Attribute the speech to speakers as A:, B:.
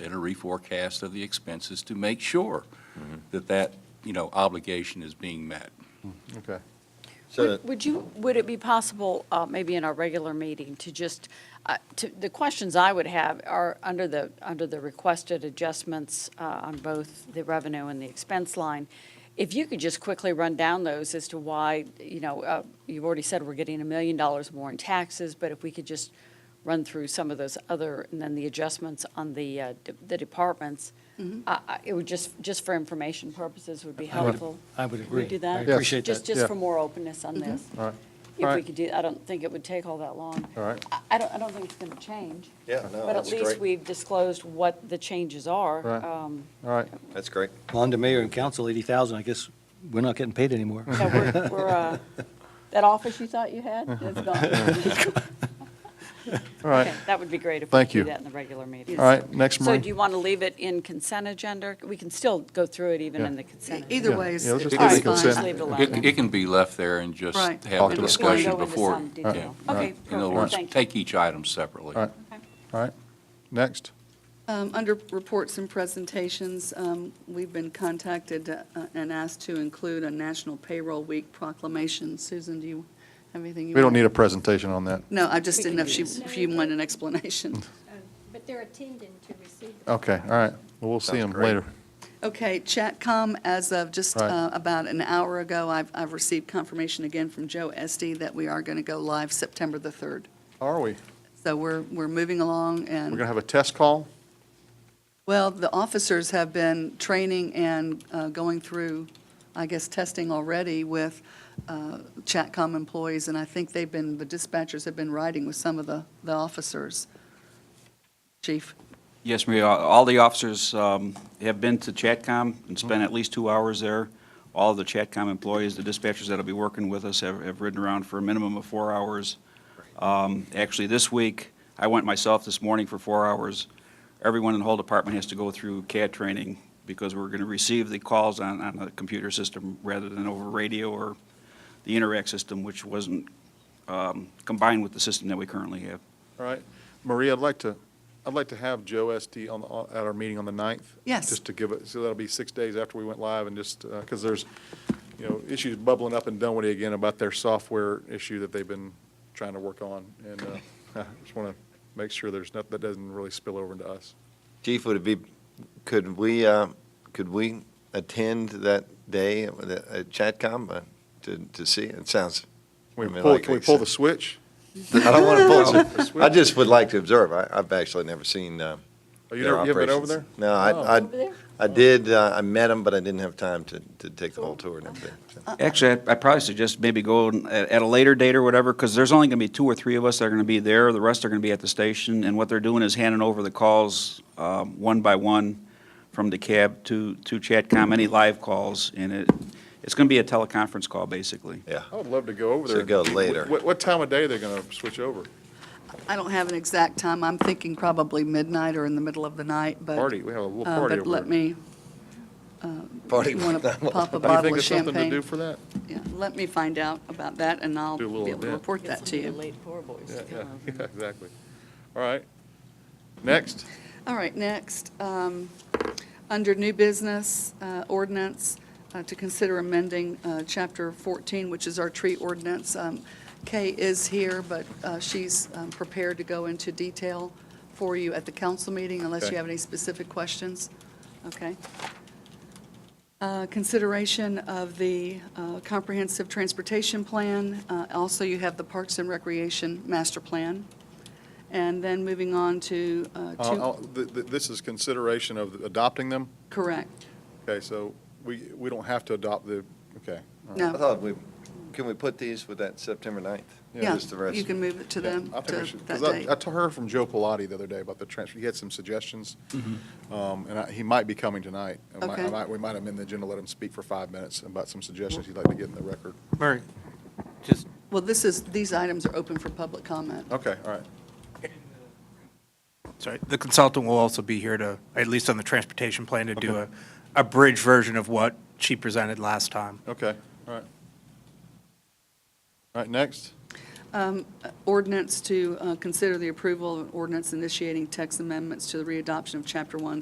A: and a reforecast of the expenses to make sure that that, you know, obligation is being met.
B: Okay.
C: So,
D: Would- Would you, would it be possible, uh, maybe in our regular meeting, to just, uh, to, the questions I would have are under the, under the requested adjustments uh, on both the revenue and the expense line, if you could just quickly run down those as to why, you know, uh, you've already said we're getting a million dollars more in taxes, but if we could just run through some of those other, and then the adjustments on the, uh, de- the departments, I- I- it would just, just for information purposes would be
E: I would-
D: helpful.
E: I would
D: Could we
E: agree.
D: do that?
E: I appreciate
D: Just,
E: that.
D: just
B: yeah.
D: for more openness on this.
B: All right. All
D: If we
B: right.
D: could do, I don't think it would take all that long.
B: All right.
D: I- I don't, I don't think it's going to change.
C: yeah, no,
D: But at
C: that's
D: least
C: great.
D: we've disclosed what the changes are.
B: Right.
D: Um,
B: All right.
C: That's great.
E: On to mayor and council, 80,000, I guess we're not getting paid anymore.
D: so we're- we're, uh, That office you thought you had, it's gone.
B: All right.
D: Okay, That would be great if we
B: Thank
D: could do
B: you.
D: that in the regular meeting.
B: All right. Next,
D: So do you
B: Marie.
D: want to leave it in consent agenda? We can still go through it even
B: Yeah.
D: in the consent. agenda.
F: E-, Either way, it's
B: Yeah, let's
F: it's
B: just
F: fine.
B: leave it consent.
D: Just leave it alone.
A: It, it can be left there and just
F: Right.
A: have the
F: Talk
D: We're going to
A: discussion
D: go into
A: before.
D: some
A: yeah.
D: detail. Okay,
A: In other
D: perfect,
A: words,
D: thank you.
A: take each item separately.
B: All right. All right. Next.
F: Um, Under reports and presentations, um, we've been contacted uh, and asked to include a National Payroll Week proclamation. Susan, do you have anything you?
B: We don't
F: want-
B: need a presentation on that.
F: No, I just
D: We
F: didn't
D: can
F: know if
D: do
F: she,
D: this.
F: if you wanted an explanation.
G: But they're attending to receive. the-
B: Okay, all right. Well, we'll see
C: Sounds
B: them
C: great.
B: later.
F: Okay, Chatcom, as of just
B: Right.
F: uh, about an hour ago, I've, I've received confirmation again from Joe Estee that we are going to go live September the 3rd.
B: Are we?
F: So we're, we're moving along
B: We're
F: and.
B: going to have a test call?
F: Well, the officers have been training and uh, going through, I guess, testing already with uh, Chatcom employees, and I think they've been, the dispatchers have been riding with some of the, the officers. Chief?
H: Yes, Maria, all the officers um, have been to Chatcom and spent at least two hours there. All of the Chatcom employees, the dispatchers that'll be working with us have have ridden around for a minimum of four hours. Um, Actually, this week, I went myself this morning for four hours. Everyone in the whole department has to go through CAD training because we're going to receive the calls on, on a computer system rather than over radio or the Interact system, which wasn't um, combined with the system that we currently have.
B: All right. Maria, I'd like to, I'd like to have Joe Estee on, the- at our meeting on the 9th.
F: Yes.
B: Just to give it, so that'll be six days after we went live and just, because there's, you know, issues bubbling up in Dunwoody again about their software issue that they've been trying to work on. And uh, I just want to make sure there's nothing, that doesn't really spill over into us.
C: Chief, would it be, could we, uh, could we attend that day at the- at Chatcom uh, to, to see? It sounds, I
B: Can we
C: mean,
B: pull,
C: like
B: can we
C: they
B: pull
C: said.
B: the switch?
C: I don't want to pull
B: Switch?
C: it. I just would like to observe. I, I've actually never seen uh,
B: Oh, you
C: their
B: never, you haven't been over
C: operations.
B: there?
C: No,
B: Oh.
C: I,
D: Over there?
C: I, I did, uh, I met them, but I didn't have time to, to take the whole tour and everything. so.
H: Actually, I- I'd probably suggest maybe go at at a later date or whatever, because there's only going to be two or three of us that are going to be there. The rest are going to be at the station, and what they're doing is handing over the calls um, one by one from the cab to to Chatcom, any live calls, and it, it's going to be a teleconference call, basically.
C: Yeah.
B: I would love to go over there.
C: Should go later.
B: What, what time of day they're going to switch over?
F: I don't have an exact time. I'm thinking probably midnight or in the middle of the night, but.
B: Party, we have a little
F: uh,
B: party over there.
F: But let me,
C: Party.
F: you want to pop a
B: Do you
F: bottle
B: think
F: of
B: there's something to
F: champagne?
B: do for that?
F: Yeah, let me find out about that, and I'll be
B: Do a little
F: able to
B: event.
F: report
D: Get
F: that
D: some
F: to
D: of the
F: you.
D: late poor boys to come
B: Yeah,
D: over.
B: yeah, exactly. All right. Next,
F: All right, next, um, under new business uh, ordinance, uh, to consider amending uh, Chapter 14, which is our tree ordinance. Um, Kay is here, but uh, she's um, prepared to go into detail for you at the council meeting unless
B: Okay.
F: you have any specific questions. Okay. Uh, Consideration of the uh, Comprehensive Transportation Plan. Uh, Also, you have the Parks and Recreation Master Plan. And then moving on to uh,
B: uh,
F: two.
B: uh, th- th- this is consideration of adopting them?
F: Correct.
B: Okay, so we, we don't have to adopt the, okay. all right.
F: No.
C: I thought we, can we put these with that September 9th?
F: Yeah,
C: Just the rest.
F: you can move it to
B: Yeah,
F: them,
B: I think we
F: to
B: should- 'cause
F: that
B: I-
F: date.
B: I t- heard from Joe Pilati the other day about the transfer. He had some suggestions. Um, And I- he might be coming tonight. I might- I
F: Okay.
B: might- We might amend the agenda, let him speak for five minutes about some suggestions he'd like to get in the record.
E: Mary, just
F: Well, this is, these items are open for public comment.
B: Okay, all right.
I: Sorry, the consultant will also be here to, at least on the transportation plan, to do a, a bridge version of what she presented last time.
B: Okay, all right. All right, next.
F: Um, uh, Ordinance to uh, consider the approval of an ordinance initiating text amendments to the readoption of Chapter 1,